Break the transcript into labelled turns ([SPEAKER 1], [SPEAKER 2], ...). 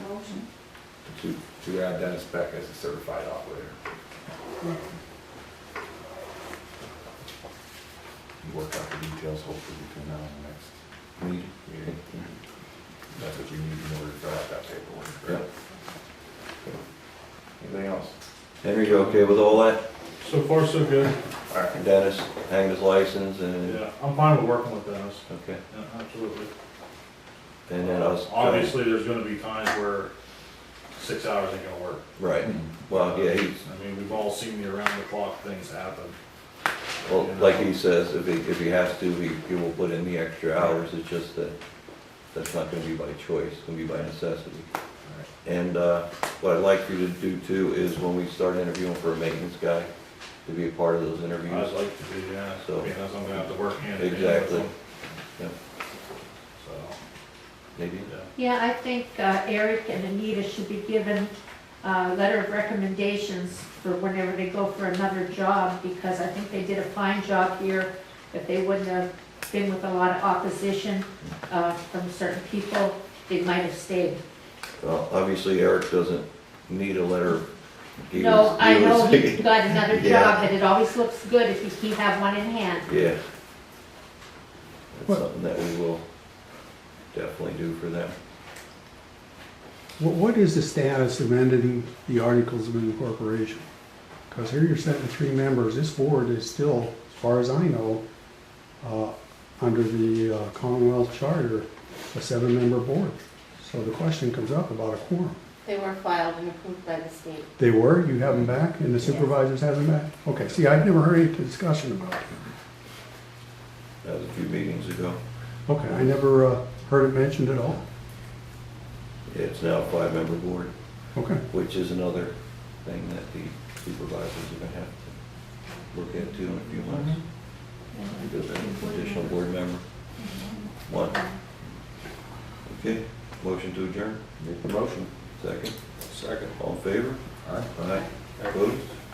[SPEAKER 1] to, to add Dennis Beck as a certified operator. Um, And Work out the details hopefully between now and the next meeting. meeting. That's what you need in order to fill out that paperwork,
[SPEAKER 2] Yeah.
[SPEAKER 1] right? Anything else?
[SPEAKER 2] Henry, you okay with all that?
[SPEAKER 3] So far, so good.
[SPEAKER 1] All right,
[SPEAKER 2] And Dennis hanged his license and,
[SPEAKER 3] Yeah, I'm fine with working with Dennis.
[SPEAKER 2] okay,
[SPEAKER 3] Yeah, absolutely.
[SPEAKER 2] and then us.
[SPEAKER 3] Obviously, there's gonna be times where six hours ain't gonna work.
[SPEAKER 2] Right, well, yeah, he's,
[SPEAKER 3] I mean, we've all seen the around the clock things happen.
[SPEAKER 2] well, like he says, if he, if he has to, he, he will put in the extra hours, it's just that, that's not gonna be by choice, it's gonna be by necessity. And, uh, what I'd like for you to do too is when we start interviewing for a maintenance guy, to be a part of those interviews.
[SPEAKER 3] I'd like to do that,
[SPEAKER 2] So-
[SPEAKER 3] because I'm gonna have to work hand in hand with
[SPEAKER 2] Exactly.
[SPEAKER 3] them.
[SPEAKER 2] Yeah,
[SPEAKER 3] So,
[SPEAKER 2] maybe,
[SPEAKER 3] yeah,
[SPEAKER 4] Yeah, I think uh, Eric and Anita should be given a letter of recommendations for whenever they go for another job, because I think they did a fine job here, but they wouldn't have been with a lot of opposition uh, from certain people, they might have stayed.
[SPEAKER 2] well, obviously Eric doesn't need a letter. He
[SPEAKER 4] No,
[SPEAKER 2] was- he
[SPEAKER 4] I know
[SPEAKER 2] was-
[SPEAKER 4] he got another
[SPEAKER 2] Yeah.
[SPEAKER 4] job, and it always looks good if you keep have one in hand.
[SPEAKER 2] Yeah. That's
[SPEAKER 5] What-
[SPEAKER 2] something that we will definitely do for them.
[SPEAKER 5] What, what is the status of ending the articles of incorporation? Because here you're sending three members, this board is still, as far as I know, uh, under the uh, Commonwealth Charter, a seven-member board. So the question comes up about a quorum.
[SPEAKER 6] They were filed and approved by the state.
[SPEAKER 5] They were, you have them back, and the supervisors have them back? Okay, see, I've never heard any discussion about it.
[SPEAKER 2] That was a few meetings ago.
[SPEAKER 5] Okay, I never uh, heard it mentioned at all.
[SPEAKER 2] It's now a five-member board,
[SPEAKER 5] Okay,
[SPEAKER 2] which is another thing that the supervisors are gonna have to look into in a few months. Because they need an additional board member. One. Okay, motion to adjourn,
[SPEAKER 1] make the motion.
[SPEAKER 2] second,
[SPEAKER 1] Second.
[SPEAKER 2] all in favor?
[SPEAKER 1] All right.
[SPEAKER 2] Aye. Opposed?